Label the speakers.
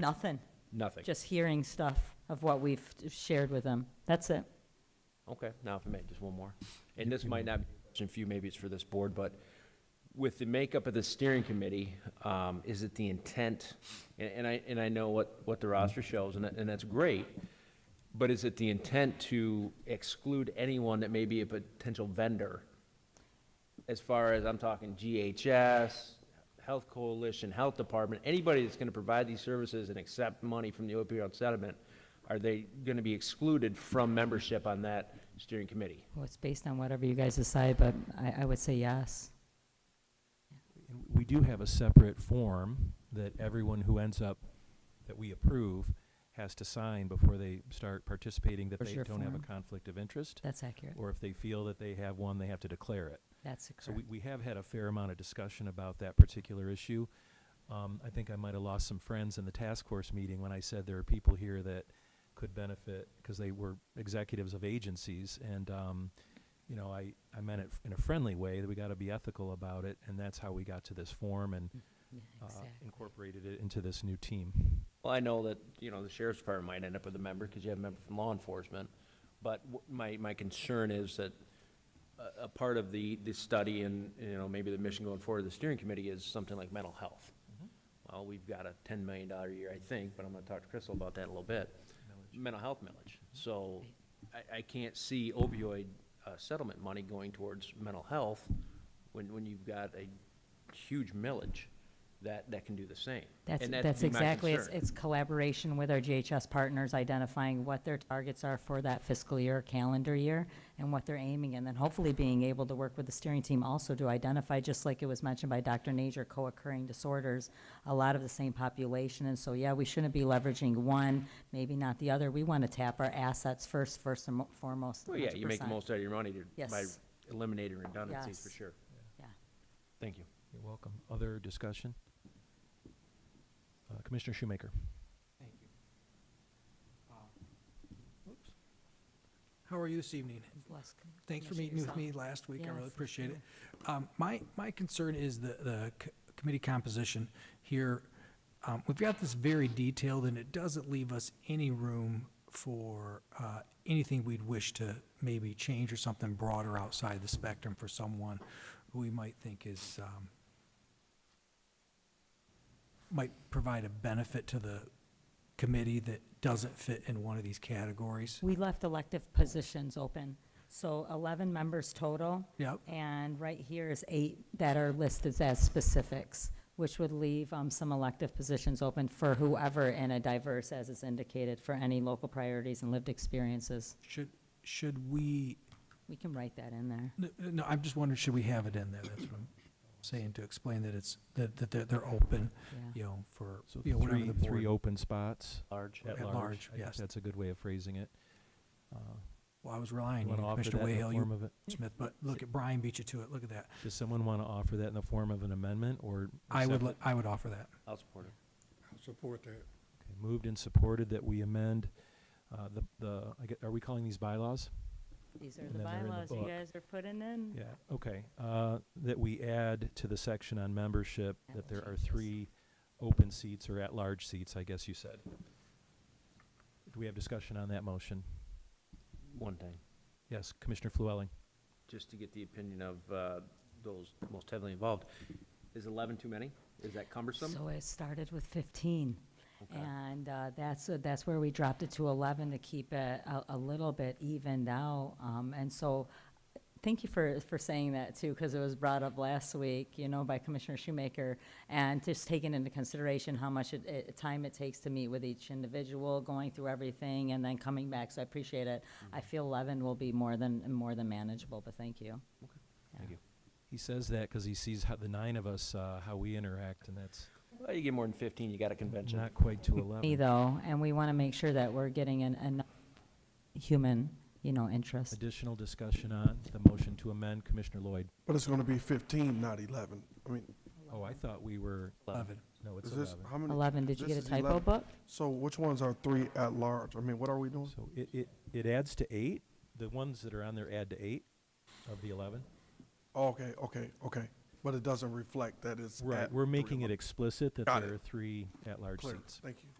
Speaker 1: Nothing,
Speaker 2: Nothing.
Speaker 1: just hearing stuff of what we've shared with them. That's it.
Speaker 2: Okay, now if I may, just one more. And this might not be a question for you, maybe it's for this board, but with the makeup of the steering committee, um, is it the intent? And, and I, and I know what, what the roster shows, and, that- and that's great, but is it the intent to exclude anyone that may be a potential vendor? As far as, I'm talking GHS, Health Coalition, Health Department, anybody that's gonna provide these services and accept money from the opioid settlement, are they gonna be excluded from membership on that steering committee?
Speaker 1: Well, it's based on whatever you guys decide, but I, I would say yes.
Speaker 3: And We do have a separate form that everyone who ends up, that we approve, has to sign before they start participating, that
Speaker 1: Where's
Speaker 3: they
Speaker 1: your
Speaker 3: don't have a
Speaker 1: form?
Speaker 3: conflict of interest,
Speaker 1: That's accurate.
Speaker 3: or if they feel that they have one, they have to declare it.
Speaker 1: That's
Speaker 3: So we,
Speaker 1: correct.
Speaker 3: we have had a fair amount of discussion about that particular issue. Um, I think I might have lost some friends in the task force meeting when I said there are people here that could benefit, because they were executives of agencies, and, um, you know, I, I meant it in a friendly way, that we gotta be ethical about it, and that's how we got to this form and,
Speaker 1: Yeah,
Speaker 3: uh,
Speaker 1: exactly.
Speaker 3: incorporated it into this new team.
Speaker 2: Well, I know that, you know, the sheriff's department might end up with a member, because you have a member from law enforcement, but w- my, my concern is that a, a part of the, the study and, you know, maybe the mission going forward of the steering committee is something like mental health. Well, we've got a ten million dollar year, I think, but I'm gonna talk to Crystal about that in a little bit. Mental health millage, so I, I can't see opioid uh, settlement money going towards mental health when, when you've got a huge millage that, that can do the same.
Speaker 1: That's,
Speaker 2: And that'd
Speaker 1: that's
Speaker 2: be my
Speaker 1: exactly, it's,
Speaker 2: concern.
Speaker 1: it's collaboration with our GHS partners, identifying what their targets are for that fiscal year, calendar year, and what they're aiming, and then hopefully being able to work with the steering team also to identify, just like it was mentioned by Dr. Nager, co-occurring disorders, a lot of the same population, and so, yeah, we shouldn't be leveraging one, maybe not the other, we want to tap our assets first, first and mo- foremost,
Speaker 2: Well, yeah, you make the
Speaker 1: 100%.
Speaker 2: most out of your money to- by
Speaker 1: Yes.
Speaker 2: eliminating redundancies, for
Speaker 1: Yes.
Speaker 2: sure.
Speaker 1: Yeah.
Speaker 2: Thank you.
Speaker 3: You're welcome. Other discussion? Uh, Commissioner Shoemaker?
Speaker 4: Thank you. Uh, oops. How are you this evening? Thanks for meeting with me last week. I really
Speaker 1: Yes,
Speaker 4: appreciate it. Um, My, my concern is the, the c- committee composition here. Um, We've got this very detailed, and it doesn't leave us any room for uh, anything we'd wish to maybe change or something broader outside the spectrum for someone who we might think is, um, might provide a benefit to the committee that doesn't fit in one of these categories.
Speaker 1: We left elective positions open, so 11 members total.
Speaker 4: Yep.
Speaker 1: And right here is eight that are listed as specifics, which would leave um, some elective positions open for whoever in a diverse, as is indicated, for any local priorities and lived experiences.
Speaker 4: Should, should we,
Speaker 1: We can write that in there.
Speaker 4: n- no, I'm just wondering, should we have it in there? That's what I'm saying, to explain that it's, that, that they're, they're open,
Speaker 1: Yeah.
Speaker 4: you know, for,
Speaker 3: So
Speaker 4: you know, whatever
Speaker 3: three,
Speaker 4: the
Speaker 3: three
Speaker 4: board.
Speaker 3: open spots
Speaker 2: Large.
Speaker 4: At large,
Speaker 3: I think
Speaker 4: yes.
Speaker 3: That's a good way of phrasing it. Uh,
Speaker 4: Well, I was relying
Speaker 3: you
Speaker 4: on
Speaker 3: wanna
Speaker 4: you,
Speaker 3: offer
Speaker 4: Commissioner
Speaker 3: that in the
Speaker 4: Wayhill,
Speaker 3: form
Speaker 4: you
Speaker 3: of a-
Speaker 4: Smith, but look at, Brian beat you to it, look at that.
Speaker 3: Does someone want to offer that in the form of an amendment or?
Speaker 4: I would,
Speaker 3: accept
Speaker 4: let- I would offer that.
Speaker 2: I'll support it.
Speaker 5: I'll support that.
Speaker 3: it? Okay, Moved and supported that we amend, uh, the, the, I get- are we calling these bylaws?
Speaker 1: These are
Speaker 3: And
Speaker 1: the
Speaker 3: then they're in the
Speaker 1: bylaws you
Speaker 3: book.
Speaker 1: guys are putting in.
Speaker 3: Yeah, okay. Uh, That we add to the section on membership
Speaker 1: Yeah,
Speaker 3: that
Speaker 1: we'll
Speaker 3: there are
Speaker 1: change this.
Speaker 3: three open seats or at-large seats, I guess you said. Do we have discussion on that motion?
Speaker 2: One thing,
Speaker 3: Yes, Commissioner Flewelling.
Speaker 2: just to get the opinion of uh, those most heavily involved. Is 11 too many? Is that cumbersome?
Speaker 1: So it started with 15.
Speaker 2: Okay.
Speaker 1: And uh, that's, that's where we dropped it to 11 to keep it a, a little bit evened out. Um, And so, thank you for, for saying that too, because it was brought up last week, you know, by Commissioner Shoemaker. And just taking into consideration how much it- it, time it takes to meet with each individual, going through everything and then coming back. So I appreciate it. I
Speaker 5: Mm-hmm.
Speaker 1: feel 11 will be more than, more than manageable, but thank you.
Speaker 2: Thank you.
Speaker 3: He says that because he sees how the nine of us, uh, how we interact, and that's
Speaker 2: Well, you get more than 15, you got a convention.
Speaker 3: not quite to
Speaker 1: Me
Speaker 3: 11.
Speaker 1: though, and we want to make sure that we're getting an, an human, you know, interest.
Speaker 3: Additional discussion on the motion to amend, Commissioner Lloyd.
Speaker 5: But it's gonna be fifteen, not eleven. I mean,
Speaker 3: Oh, I thought we were,
Speaker 4: Eleven.
Speaker 3: no, it's
Speaker 5: is this,
Speaker 3: 11.
Speaker 5: how many?
Speaker 1: 11, did you
Speaker 5: this
Speaker 1: get a
Speaker 5: is
Speaker 1: typo
Speaker 5: 11.
Speaker 1: book?
Speaker 5: So which ones are three at large? I mean, what are we doing?
Speaker 3: So it, it, it adds to eight? The ones that are on there add to eight of the 11?
Speaker 5: Oh, Okay, okay, okay. But it doesn't reflect that it's
Speaker 3: Right,
Speaker 5: at
Speaker 3: we're
Speaker 5: three
Speaker 3: making it
Speaker 5: o'clock.
Speaker 3: explicit that
Speaker 5: Got
Speaker 3: there
Speaker 5: it.
Speaker 3: are three at-large
Speaker 5: Clear.
Speaker 3: seats.
Speaker 5: Thank you.